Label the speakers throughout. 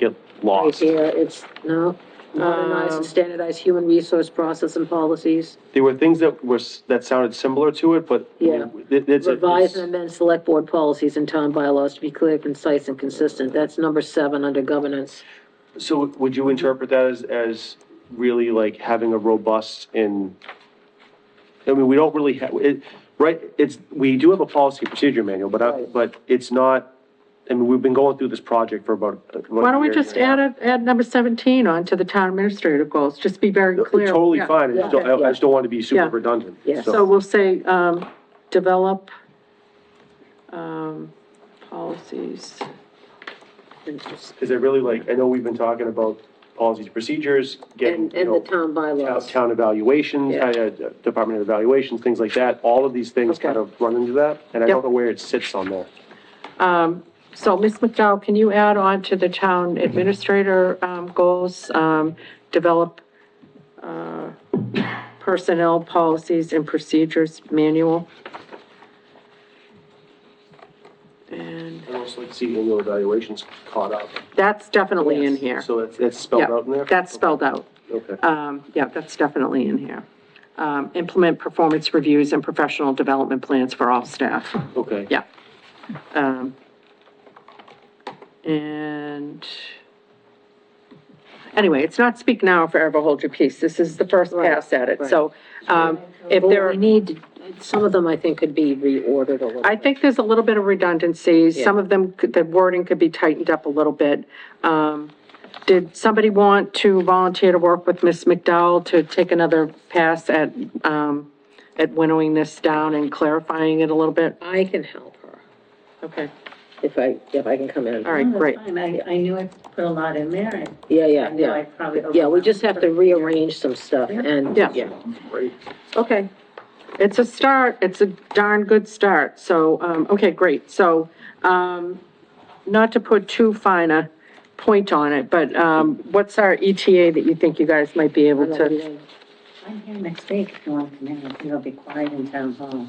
Speaker 1: You Um, get
Speaker 2: Right
Speaker 1: lost.
Speaker 2: here, it's, no, modernize and standardize human resource process and policies,
Speaker 1: There were things that were, s- that sounded similar to it, but
Speaker 2: Yeah.
Speaker 1: it- it's, a-
Speaker 2: revise and
Speaker 1: it's,
Speaker 2: amend select board policies and town bylaws to be clear, concise, and consistent. That's number seven under governance.
Speaker 1: so would you interpret that as, as really like having a robust and, I mean, we don't really have, it, right, it's, we do have a policy procedure manual, but I,
Speaker 2: Right.
Speaker 1: but it's not, I mean, we've been going through this project for about.
Speaker 3: Why don't we just add it, add number seventeen on to the town administrative goals, just be very clear.
Speaker 1: Totally
Speaker 3: Yeah.
Speaker 1: fine, I just don't, I- I just don't want to be
Speaker 3: Yeah.
Speaker 1: super redundant.
Speaker 2: Yeah.
Speaker 3: So we'll say, um, develop, um, policies.
Speaker 1: Because I really like, I know we've been talking about policies, procedures, getting,
Speaker 2: And,
Speaker 1: you
Speaker 2: and the
Speaker 1: know,
Speaker 2: town
Speaker 1: out-
Speaker 2: bylaws.
Speaker 1: town evaluations,
Speaker 2: Yeah.
Speaker 1: uh, uh, Department of Evaluations, things like that. All of these things
Speaker 2: Okay.
Speaker 1: kind of run into that, and I
Speaker 3: Yep.
Speaker 1: don't know where it sits on there.
Speaker 3: Um, so Ms. McDowell, can you add on to the town administrator, um, goals, um, develop, uh, personnel policies and procedures manual? And
Speaker 1: I'd also like to see annual evaluations caught up.
Speaker 3: that's definitely in
Speaker 2: Yes.
Speaker 3: here.
Speaker 1: So that's, that's spelled
Speaker 3: Yep,
Speaker 1: out in there?
Speaker 3: That's spelled out.
Speaker 1: Okay.
Speaker 3: Um, yeah, that's definitely in here. Um, implement performance reviews and professional development plans for all staff,
Speaker 1: Okay.
Speaker 3: yeah. Um, and anyway, it's not speak now or forever hold your peace. This is the first
Speaker 2: Right,
Speaker 3: pass at it, so, um, if
Speaker 2: Well,
Speaker 3: there are.
Speaker 2: We need, some of them I think could be reordered a little.
Speaker 3: I think there's a little bit of redundancy. Some of them, could- the wording could be tightened up a little bit. Um, Did somebody want to volunteer to work with Ms. McDowell to take another pass at, um, at winnowing this down and clarifying it a little bit?
Speaker 2: I can help her
Speaker 3: Okay,
Speaker 2: if I, if I can come in.
Speaker 3: all right, great.
Speaker 4: Fine, I, I knew I put a lot in there, and
Speaker 2: Yeah,
Speaker 4: I
Speaker 2: yeah,
Speaker 4: knew I
Speaker 2: yeah.
Speaker 4: probably.
Speaker 2: Yeah, we just have to rearrange some stuff and,
Speaker 3: Yeah.
Speaker 2: yeah.
Speaker 1: Great.
Speaker 3: Okay. It's a start, it's a darn good start, so, um, okay, great, so, um, not to put too fine a point on it, but, um, what's our ETA that you think you guys might be able to?
Speaker 4: I'm here next week if you want to come in, it'll be quiet in town hall.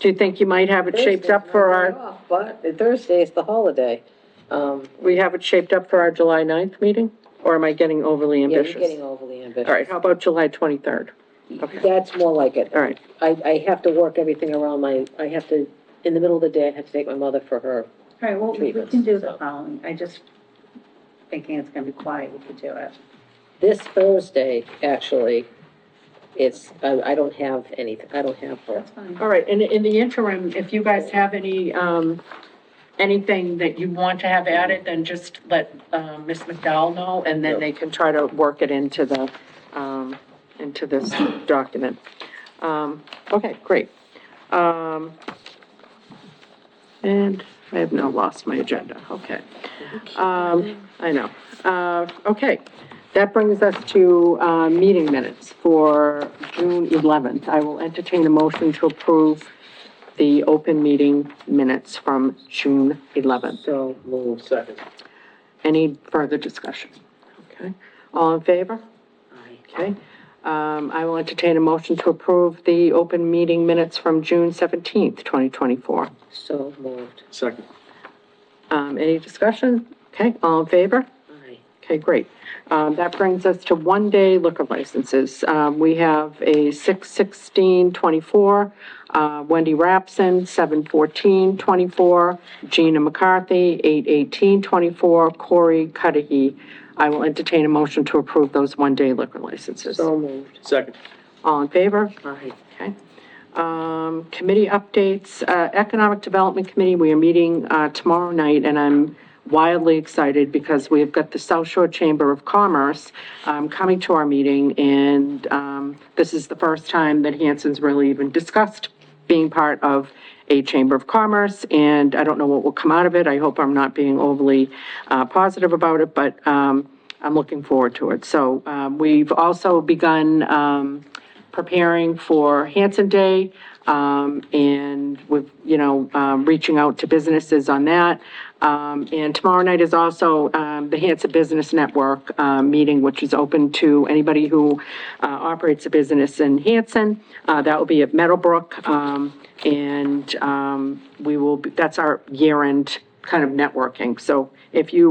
Speaker 3: Do you think you might have it shaped up for our,
Speaker 2: But Thursday is the holiday. Um,
Speaker 3: we have it shaped up for our July 9th meeting? Or am I getting overly
Speaker 2: yeah, you're
Speaker 3: ambitious?
Speaker 2: getting overly ambitious.
Speaker 3: All right, how about July 23rd?
Speaker 2: That's more like it.
Speaker 3: All right,
Speaker 2: I, I have to work everything around my, I have to, in the middle of the day, I have to take my mother for her.
Speaker 4: All right, well, we we
Speaker 2: Treatments,
Speaker 4: can do the
Speaker 2: so.
Speaker 4: following, I just thinking it's gonna be quiet, we could do it.
Speaker 2: This Thursday, actually, it's, I, I don't have anything, I don't have her.
Speaker 4: That's fine.
Speaker 3: all right, and in the interim, if you guys have any, um, anything that you want to have added, then just let, um, Ms. McDowell know, and then they can try to work it into the, um, into this document. Um, okay, great. Um, and I have now lost my agenda, okay. Um, I know. Uh, okay, that brings us to, uh, meeting minutes for June eleventh. I will entertain a motion to approve the open meeting minutes from June eleventh.
Speaker 2: So moved.
Speaker 1: Second.
Speaker 3: Any further discussion? Okay, all in favor?
Speaker 2: Aye.
Speaker 3: Okay, um, I will entertain a motion to approve the open meeting minutes from June seventeenth, twenty twenty-four.
Speaker 2: So moved.
Speaker 1: Second.
Speaker 3: Um, any discussion? Okay, all in favor?
Speaker 2: Aye.
Speaker 3: Okay, great. Um, that brings us to one-day liquor licenses. Um, we have a six sixteen twenty-four, uh, Wendy Rapson, seven fourteen twenty-four, Gina McCarthy, eight eighteen twenty-four, Corey Cudahy. I will entertain a motion to approve those one-day liquor licenses.
Speaker 2: So moved.
Speaker 1: Second.
Speaker 3: All in favor?
Speaker 2: Aye.
Speaker 3: Okay. Um, committee updates, uh, Economic Development Committee, we are meeting, uh, tomorrow night, and I'm wildly excited because we have got the South Shore Chamber of Commerce, um, coming to our meeting, and, um, this is the first time that Hanson's really even discussed being part of a Chamber of Commerce, and I don't know what will come out of it. I hope I'm not being overly uh, positive about it, but um, I'm looking forward to it. So um, we've also begun um, preparing for Hanson Day, um, and with, you know, um, reaching out to businesses on that. Um, And tomorrow night is also um, the Hanson Business Network uh, meeting, which is open to anybody who uh, operates a business in Hanson. Uh, That will be at Meadowbrook. um, And um, we will, be- that's our year-end kind of networking. So if you